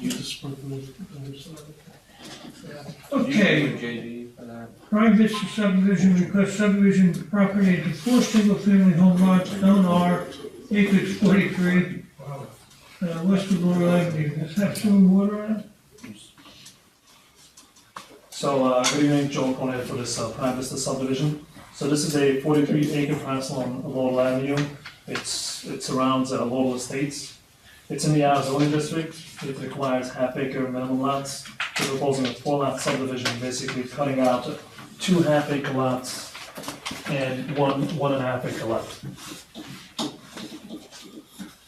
You just put them in the side. Okay, JD for that. Prime Vista subdivision request subdivision of property into four single-family home lots, zone R, acres forty-three, uh, west of Laurel Avenue. Does that have sewer water on it? So, uh, good evening, Joel Conrad for this uh, Prime Vista subdivision. So this is a forty-three acre parcel on Laurel Avenue. It's, it surrounds uh, Laurel Estates. It's in the R zoning district. It requires half acre minimum lots. We're proposing a four lot subdivision, basically cutting out two half acre lots and one, one and a half acre lot.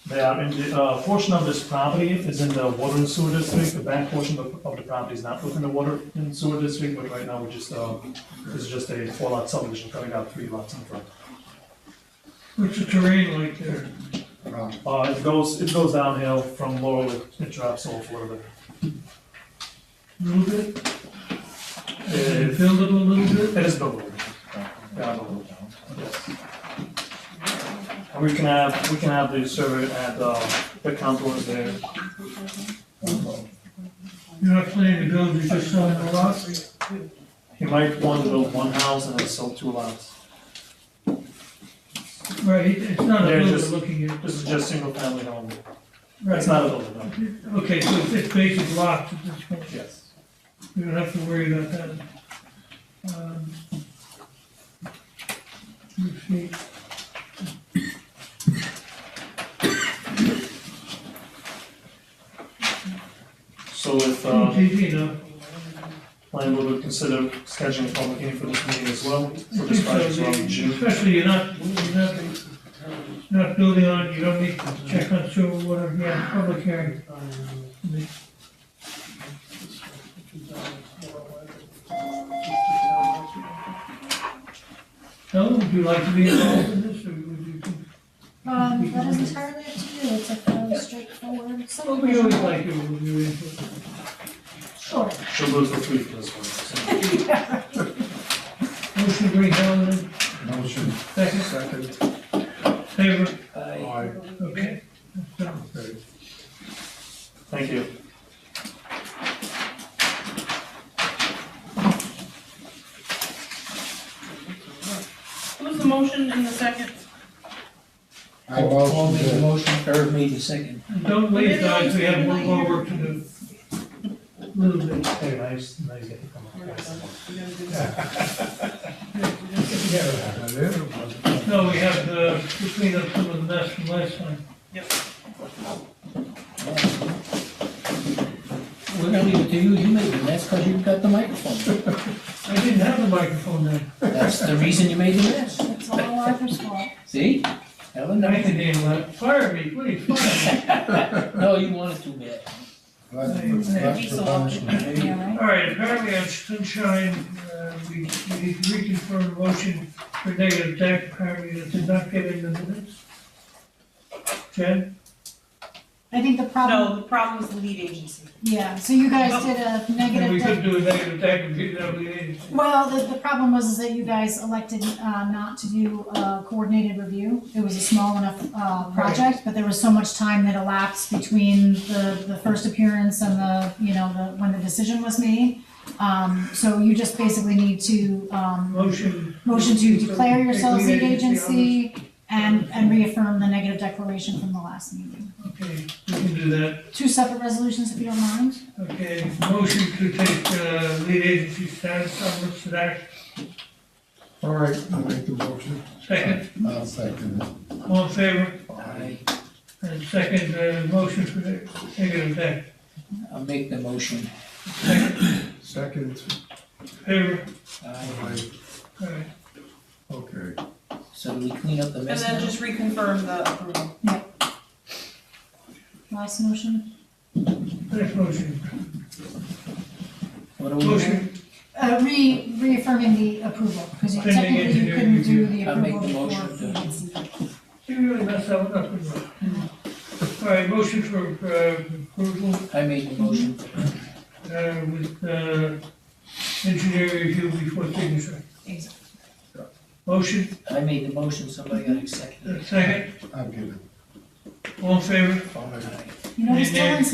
They are in the, uh, portion of this property is in the water and sewer district, the back portion of, of the property is not within the water and sewer district, but right now we're just, uh, this is just a four lot subdivision cutting out three lots in front. What's the terrain like there? Uh, it goes, it goes downhill from Laurel, it- it drops all further. A little bit? It Build it a little bit? it is buildable. Yeah, buildable, yes. And we can have, we can have the survey at, uh, the contours there. You're not planning to build, you're just selling the lots? He might want to build one house and then sell two lots. Right, it- it's not a They're builder just- looking at. This is just single family home. right. It's not a building, no. Okay, so it's- it's basic lots at this point. Yes. We don't have to worry about that. Um, let's see. So if, Oh, uh, gee, gee, no. landlord would consider scheduling a public hearing for this meeting as well, I for think this so, project as well in June. Especially you're not, you're not, you're not building on, you don't need to check on sewer, whatever, yeah, public hearing. Helen, would you like to be involved in this, or would you? Um, that is entirely up to you, it's a fairly straightforward Well, we always subdivision. like your, your input. Sure. She'll do it for free for this one. so. Motion to bring Helen in, Motion second, second. favor, Aye. okay? So, Thank you. Who's the motion in the second? I motion made the to- motion, Eric made the second. Mm-hmm. Don't leave, guys, we have one more work to do. Little bit. Hey, nice, nice getting to come up. No, we have the, between us, some of the mess from last time. We're gonna leave it to you, you made it, that's because you've got the microphone. I didn't have the microphone then. That's the reason you made the mess. It's all Arthur's fault. See? Helen, I no, can handle that. Fire me, please, fire me. no, you wanted to, Matt. That's for punishment. Yeah, right? All right, apparently on Sunshine, uh, we, we reconfirmed motion for negative deck, apparently that did not get in the minutes. Jen? I think the No, problem, the problem is the lead agency. yeah, so you guys did a And we negative, could de- do a negative deck and be that we, well, the, the problem was is that you guys elected, uh, not to do a coordinated review. It was a small enough, uh, project, but there was so much time that elapsed between the, the first appearance and the, you know, the, when the decision was made. Um, so you just basically need to, um, motion. Motion to declare yourselves lead on this. agency and, and reaffirm the negative declaration from the last meeting. Okay, we can do that. Two separate resolutions, if you don't mind. Okay, motion to take, uh, lead agency status on Woodstock Act, All right, I'll make the motion. second, I'll second it. all in favor, I, and second, uh, motion for the negative deck, I'll make the motion. Second, favor, Aye. aye, all right. okay. So do we clean up the And mess then now? just reconfirm the approval. Last motion. Next motion, What are we doing? motion, Uh, re, reaffirming the approval, because Pending technically you couldn't do the engineering I'll make approval before. the motion to- vacancy. you really messed that one up, didn't you? All right, motion for, uh, approval, I made the motion. uh, with, uh, engineer review before signature. Exactly. Motion, I made the motion, somebody got second. uh, second, I'll give it. all in favor, Aye. You know, it's still in